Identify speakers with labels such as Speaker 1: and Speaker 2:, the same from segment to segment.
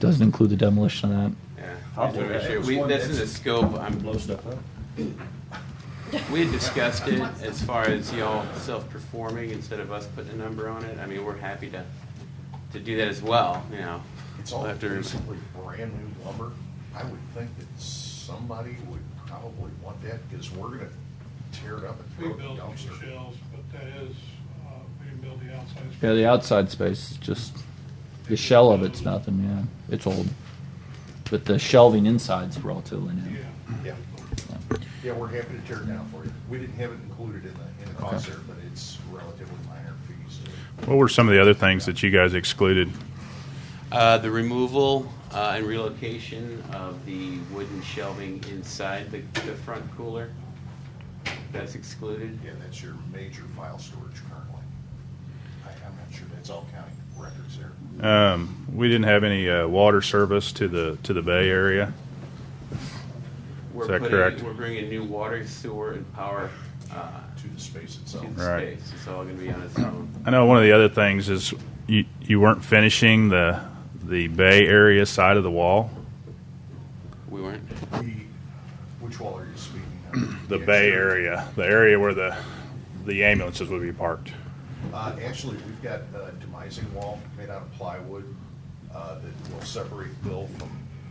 Speaker 1: Doesn't include the demolition of
Speaker 2: Yeah.
Speaker 3: I'll
Speaker 2: These
Speaker 3: do
Speaker 2: are
Speaker 3: that.
Speaker 2: issues.
Speaker 3: It's
Speaker 2: We,
Speaker 3: one
Speaker 2: this is
Speaker 3: that's-
Speaker 2: a scope, I'm,
Speaker 3: Blow stuff up.
Speaker 2: we had discussed it as far as y'all self-performing instead of us putting a number on it. I mean, we're happy to, to do that as well, you know.
Speaker 4: It's all
Speaker 2: We'll have to-
Speaker 4: basically brand new lumber. I would think that somebody would probably want that because we're gonna tear it up and
Speaker 5: We
Speaker 4: throw it in
Speaker 5: built
Speaker 4: the
Speaker 5: the
Speaker 4: dumpster.
Speaker 5: shells, but that is, uh, we didn't build the outside.
Speaker 1: that. Yeah, the outside space is just the shell of it's nothing. Yeah, it's old, but the shelving inside's relatively new.
Speaker 5: Yeah.
Speaker 4: Yeah, yeah, we're happy to tear it down for you. We didn't have it included in the, in the cost there, but it's relatively minor fees.
Speaker 6: What were some of the other things that you guys excluded?
Speaker 2: Uh, the removal uh, and relocation of the wooden shelving inside the, the front cooler, that's excluded.
Speaker 4: Yeah, that's your major file storage currently. I, I'm not sure, that's all county records there.
Speaker 6: Um, we didn't have any uh, water service to the to the bay area.
Speaker 2: We're
Speaker 6: Is that
Speaker 2: putting-
Speaker 6: correct?
Speaker 2: We're bringing new water, sewer, and power uh,
Speaker 4: to the space
Speaker 2: to
Speaker 4: itself.
Speaker 2: the
Speaker 6: Right.
Speaker 2: space. It's all gonna be on its own.
Speaker 6: I know one of the other things is you you weren't finishing the the bay area side of the wall,
Speaker 2: We weren't,
Speaker 4: We, which wall are you speaking of?
Speaker 6: the
Speaker 4: Yeah,
Speaker 6: bay
Speaker 4: sure.
Speaker 6: area, the area where the the ambulances would be parked.
Speaker 4: Uh, actually, we've got a demising wall made out of plywood, uh, that will separate Bill from,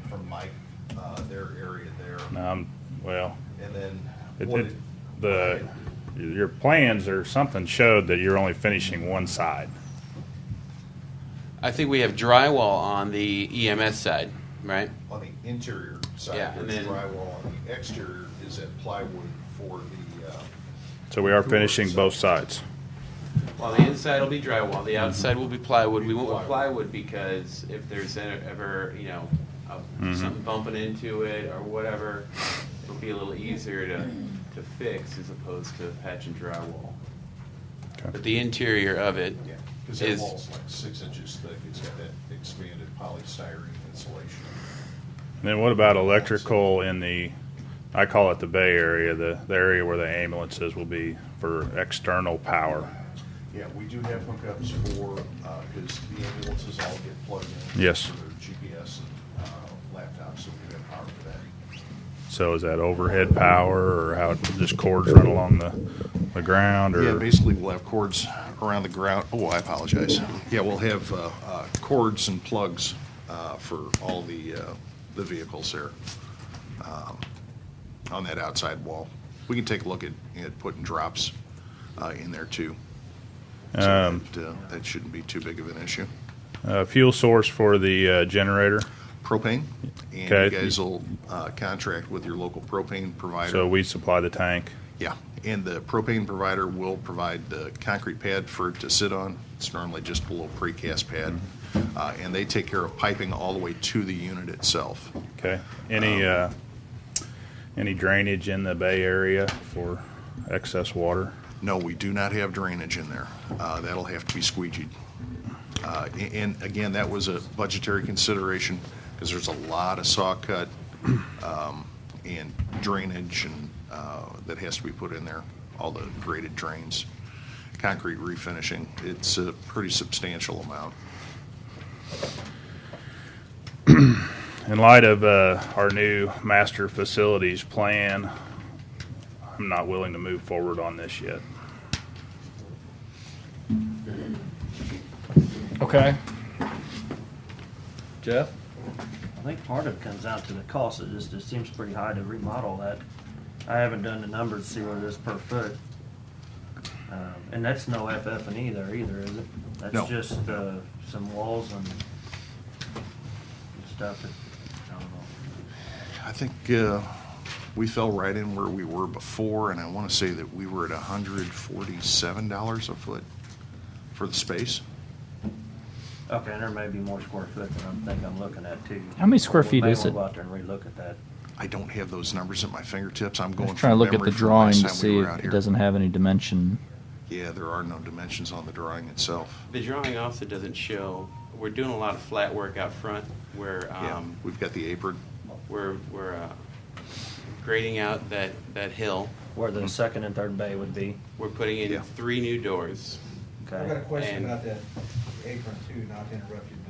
Speaker 4: from Mike, uh, their area there.
Speaker 6: Um, well,
Speaker 4: And then
Speaker 6: it,
Speaker 4: what
Speaker 6: it,
Speaker 4: it,
Speaker 6: the your plans or something showed that you're only finishing one side.
Speaker 2: I think we have drywall on the EMS side, right?
Speaker 4: on the interior
Speaker 2: Yeah,
Speaker 4: side,
Speaker 2: and
Speaker 4: there's
Speaker 2: then-
Speaker 4: drywall, on the exterior is that plywood for the, uh,
Speaker 6: So we are finishing both sides.
Speaker 2: Well, the inside will be drywall, the outside will be plywood. We went with plywood because if there's e- ever, you know, a- something bumping into it or whatever, it'll be a little easier to, to fix as opposed to patching drywall.
Speaker 6: Okay.
Speaker 2: But the interior of it
Speaker 4: yeah, cause that
Speaker 2: is,
Speaker 4: wall's like six inches thick, it's got that expanded polystyrene insulation.
Speaker 6: And then what about electrical in the, I call it the Bay Area, the, the area where the ambulances will be for external power?
Speaker 4: Yeah, we do have hookups for, uh 'cause because the ambulances all get plugged in.
Speaker 6: Yes.
Speaker 4: For their GPS and, uh, laptops, so we have power for that.
Speaker 6: So is that overhead power or how, just cords run along the, the ground
Speaker 4: Yeah,
Speaker 6: or?
Speaker 4: basically, we'll have cords around the ground, oh, I apologize. Yeah, we'll have, uh, uh, cords and plugs, uh, for all the, uh, the vehicles there, um, on that outside wall. We can take a look at, at putting drops, uh, in there too. So
Speaker 6: Um,
Speaker 4: that, uh, That shouldn't be too big of an issue.
Speaker 6: Uh, fuel source for the uh, generator?
Speaker 4: propane, and you
Speaker 6: Okay.
Speaker 4: guys will uh, contract with your local propane
Speaker 6: So
Speaker 4: provider.
Speaker 6: we supply the tank.
Speaker 4: Yeah, and the propane provider will provide the concrete pad for it to sit on. It's normally just a little precast pad. Uh, And they take care of piping all the way to the unit itself.
Speaker 6: Okay. Any, uh, any drainage in the Bay Area for excess water?
Speaker 4: No, we do not have drainage in there. Uh, That'll have to be squeegeed. Uh, a- And again, that was a budgetary consideration because there's a lot of saw cut um, and drainage and uh, that has to be put in there, all the graded drains, concrete refinishing. It's a pretty substantial amount.
Speaker 6: In light of uh, our new master facilities plan, I'm not willing to move forward on this yet.
Speaker 1: Okay. Jeff.
Speaker 3: I think part of it comes down to the cost. It just, it seems pretty high to remodel that. I haven't done the numbers to see what it is per foot. Um, And that's no FF and E there either, is it?
Speaker 4: No.
Speaker 3: That's just, uh, some walls and stuff that, I don't know.
Speaker 4: I think uh, we fell right in where we were before, and I want to say that we were at $147 a foot for the space.
Speaker 3: Okay, and there may be more square foot than I'm think I'm looking at too.
Speaker 1: How many square feet is
Speaker 3: We
Speaker 1: it?
Speaker 3: may want to go out there and relook at that.
Speaker 4: I don't have those numbers at my fingertips. I'm
Speaker 1: I
Speaker 4: going.
Speaker 1: was trying to
Speaker 4: from
Speaker 1: look at
Speaker 4: memory
Speaker 1: the
Speaker 4: from
Speaker 1: drawing
Speaker 4: last
Speaker 1: to
Speaker 4: time we
Speaker 1: see
Speaker 4: were
Speaker 1: if
Speaker 4: out
Speaker 1: it
Speaker 4: here.
Speaker 1: doesn't have any dimension.
Speaker 4: Yeah, there are no dimensions on the drawing itself.
Speaker 2: the drawing also doesn't show, we're doing a lot of flat work out front where,
Speaker 4: Yeah,
Speaker 2: um,
Speaker 4: we've got the apron.
Speaker 2: we're, we're uh, grading out that, that hill.
Speaker 3: Where the second and third bay would be,
Speaker 2: We're putting in
Speaker 4: Yeah.
Speaker 2: three new doors.
Speaker 3: okay?
Speaker 7: I've got a question
Speaker 2: And-
Speaker 7: about that apron too, not to interrupt you,